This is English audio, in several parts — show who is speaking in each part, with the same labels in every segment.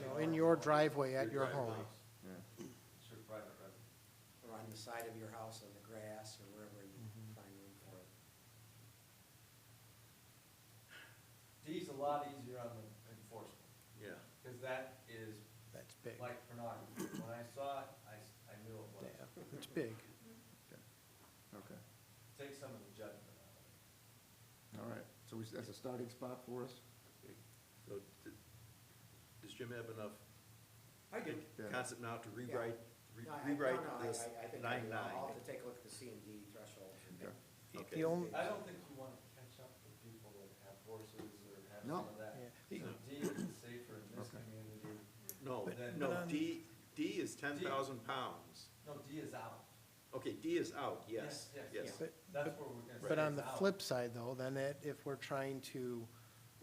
Speaker 1: No, in your driveway at your home.
Speaker 2: It's your private residence.
Speaker 3: or on the side of your house on the grass or wherever you
Speaker 4: Mm-hmm.
Speaker 3: find room for it.
Speaker 2: D's a lot easier on the enforcement,
Speaker 5: Yeah,
Speaker 2: because that is
Speaker 1: That's big.
Speaker 2: like pornography. When I saw it, I, s- I knew it
Speaker 1: Yeah,
Speaker 2: was.
Speaker 1: it's big.
Speaker 6: Okay,
Speaker 2: Take some of the judgment out of it.
Speaker 6: all right, so we, that's a starting spot for us?
Speaker 5: so, d- does Jim have enough
Speaker 3: I do.
Speaker 6: Yeah.
Speaker 5: concept now to rewrite, re-
Speaker 3: No, I-
Speaker 5: rewrite
Speaker 3: no, no, I-
Speaker 5: this
Speaker 3: I- I think I
Speaker 5: nine
Speaker 3: do.
Speaker 5: nine?
Speaker 3: I'll have to take a look at the C and D threshold.
Speaker 6: Okay.
Speaker 5: Okay.
Speaker 1: The only,
Speaker 2: I don't think you want to catch up with people that have horses or have
Speaker 6: No.
Speaker 2: some of that.
Speaker 1: yeah.
Speaker 2: So D is safer in this
Speaker 6: Okay.
Speaker 2: community.
Speaker 5: No,
Speaker 2: But- but
Speaker 5: no,
Speaker 1: on-
Speaker 5: D, D is ten thousand pounds.
Speaker 2: No, D is out.
Speaker 5: Okay, D is out, yes,
Speaker 2: Yes, yes,
Speaker 5: yes.
Speaker 1: But,
Speaker 2: That's
Speaker 1: but-
Speaker 2: where we're gonna.
Speaker 1: but
Speaker 2: say
Speaker 1: on
Speaker 2: it's
Speaker 1: the
Speaker 2: out.
Speaker 1: flip side though, then it, if we're trying to,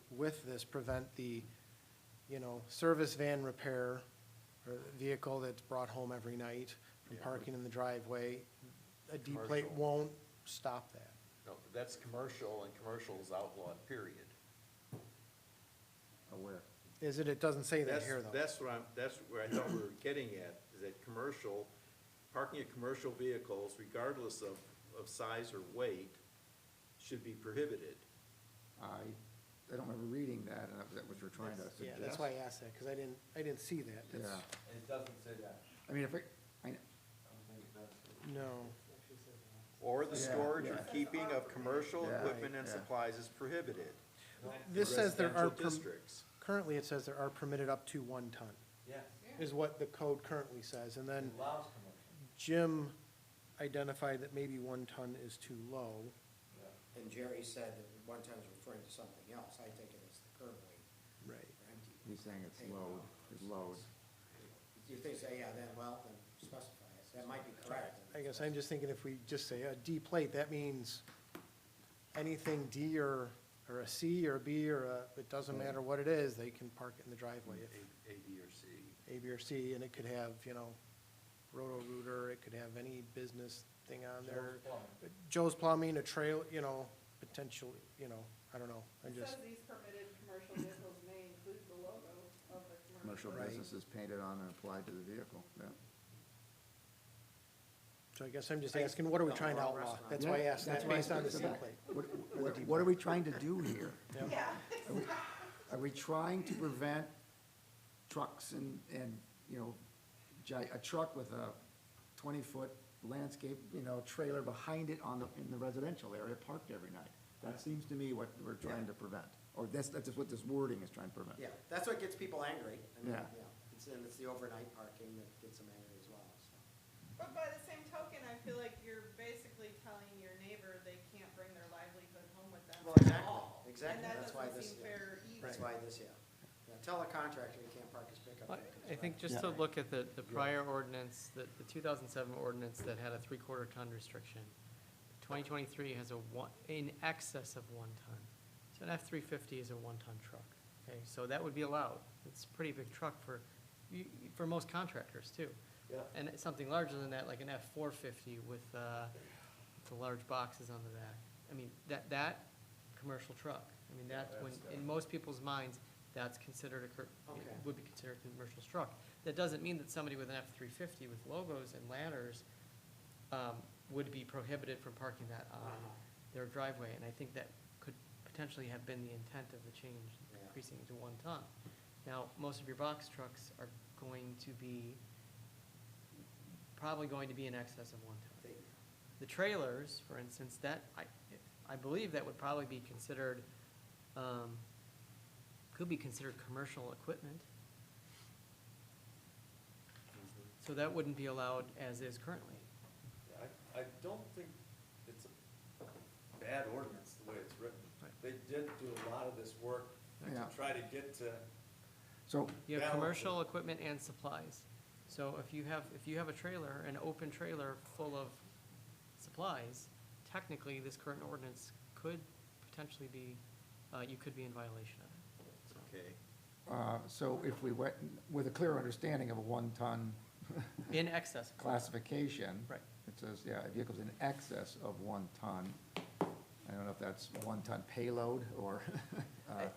Speaker 1: with this, prevent the, you know, service van repair or vehicle that's brought home every night from
Speaker 5: Yeah.
Speaker 1: parking in the driveway, a D plate
Speaker 5: Commercial.
Speaker 1: won't stop that.
Speaker 5: No, that's commercial, and commercial is outlawed, period.
Speaker 6: Aware.
Speaker 1: Is it, it doesn't say that
Speaker 5: That's,
Speaker 1: here though.
Speaker 5: that's what I'm, that's where I thought we were getting at, is that commercial, parking of commercial vehicles regardless of, of size or weight should be prohibited.
Speaker 6: I, I don't remember reading that, and that was what you're trying to
Speaker 2: That's-
Speaker 1: Yeah,
Speaker 6: suggest.
Speaker 1: that's why I asked that, because I didn't, I didn't see that.
Speaker 6: Yeah,
Speaker 2: It doesn't say that.
Speaker 6: I mean, if it, I,
Speaker 2: I don't think it does.
Speaker 1: No,
Speaker 5: Or the
Speaker 6: Yeah,
Speaker 5: storage or
Speaker 6: yeah.
Speaker 5: keeping of commercial
Speaker 6: Yeah,
Speaker 5: equipment and
Speaker 6: yeah.
Speaker 5: supplies is prohibited.
Speaker 1: this says there are,
Speaker 5: Residential
Speaker 1: perm-
Speaker 5: districts.
Speaker 1: currently it says there are permitted up to one ton,
Speaker 2: Yes,
Speaker 1: is what the code currently says, and
Speaker 2: it
Speaker 1: then
Speaker 2: allows commercial.
Speaker 1: Jim identified that maybe one ton is too low.
Speaker 2: Yeah.
Speaker 3: And Jerry said that one time was referring to something else. I take it as the curb weight
Speaker 1: Right.
Speaker 3: or empty.
Speaker 4: Mm.
Speaker 6: he's saying it's load, it's load.
Speaker 3: If they say, yeah, then, well, then specify it. That might be correct.
Speaker 1: I guess I'm just thinking if we just say a D plate, that means anything D or, or a C or a B or a, it doesn't matter what it is, they can park it in the driveway if
Speaker 5: A, A, B, or C.
Speaker 1: A, B, or C, and it could have, you know, Roto-Rooter, it could have any business thing on there.
Speaker 2: Joe's
Speaker 1: Joe's
Speaker 2: Plumbing.
Speaker 1: Plumbing, a trail, you know, potential, you know, I don't know, I'm
Speaker 4: It
Speaker 1: just,
Speaker 4: says these permitted commercial vehicles may include the logo of the commercial.
Speaker 6: Commercial
Speaker 1: Right.
Speaker 6: businesses painted on and applied to the vehicle, yeah.
Speaker 1: so I guess I'm just asking, what are we trying to outlaw? That's why I asked
Speaker 6: That's
Speaker 1: that,
Speaker 6: why I
Speaker 1: based on the
Speaker 6: said
Speaker 1: C
Speaker 6: that.
Speaker 1: plate.
Speaker 6: What, what- what are we trying to do here?
Speaker 4: Yeah.
Speaker 6: Are we trying to prevent trucks and, and, you know, gi- a truck with a twenty-foot landscape, you know, trailer behind it on the, in the residential area parked every night? That seems to me what we're trying to prevent, or that's, that's just what this wording is trying to prevent.
Speaker 3: Yeah, that's what gets people angry. I mean,
Speaker 6: Yeah.
Speaker 3: It's, and it's the overnight parking that gets them angry as well, so.
Speaker 4: But by the same token, I feel like you're basically telling your neighbor they can't bring their livelihood home with them
Speaker 3: Well,
Speaker 4: at
Speaker 3: exactly,
Speaker 4: all.
Speaker 3: exactly. That's why
Speaker 4: And that doesn't
Speaker 3: this-
Speaker 4: seem
Speaker 3: yeah.
Speaker 4: fair
Speaker 3: That's
Speaker 4: either.
Speaker 3: why this, yeah. Yeah, Tell a contractor he can't park his pickup.
Speaker 7: Well,
Speaker 3: there 'cause
Speaker 7: I
Speaker 3: it's
Speaker 7: think
Speaker 3: right.
Speaker 7: just to look at the, the prior ordinance, the, the two thousand seven ordinance that had a three-quarter ton restriction. Twenty twenty-three has a one, in excess of one ton. So an F three fifty is a one-ton truck, okay? So that would be allowed. It's a pretty big truck for, you, for most contractors too.
Speaker 2: Yeah.
Speaker 7: And it's something larger than that, like an F four fifty with, uh, the large boxes on the back. I mean, that, that commercial truck, I mean, that's when,
Speaker 2: that's, uh,
Speaker 7: in most people's minds, that's considered a, cur-
Speaker 3: Okay.
Speaker 7: would be considered a commercial truck. That doesn't mean that somebody with an F-350 with logos and ladders um, would be prohibited from parking that on
Speaker 3: Uh-huh.
Speaker 7: their driveway. And I think that could potentially have been the intent of the change,
Speaker 3: Yeah.
Speaker 7: increasing it to one ton. Now, most of your box trucks are going to be, probably going to be in excess of one ton.
Speaker 3: They-
Speaker 7: The trailers, for instance, that, I, I believe that would probably be considered, um, could be considered commercial equipment. So that wouldn't be allowed as is currently.
Speaker 2: Yeah, I, I don't think it's a bad ordinance, the way it's written. They did do a lot of this work to
Speaker 6: Yeah.
Speaker 2: try to get to,
Speaker 6: So,
Speaker 7: You have
Speaker 2: Balance it.
Speaker 7: commercial equipment and supplies. So if you have, if you have a trailer, an open trailer full of supplies, technically, this current ordinance could potentially be, uh, you could be in violation of it.
Speaker 5: Okay,
Speaker 6: uh, so if we went with a clear understanding of a one-ton
Speaker 7: In excess. of-
Speaker 6: classification.
Speaker 7: Right.
Speaker 6: It says, yeah, vehicles in excess of one ton. I don't know if that's one-ton payload or, uh,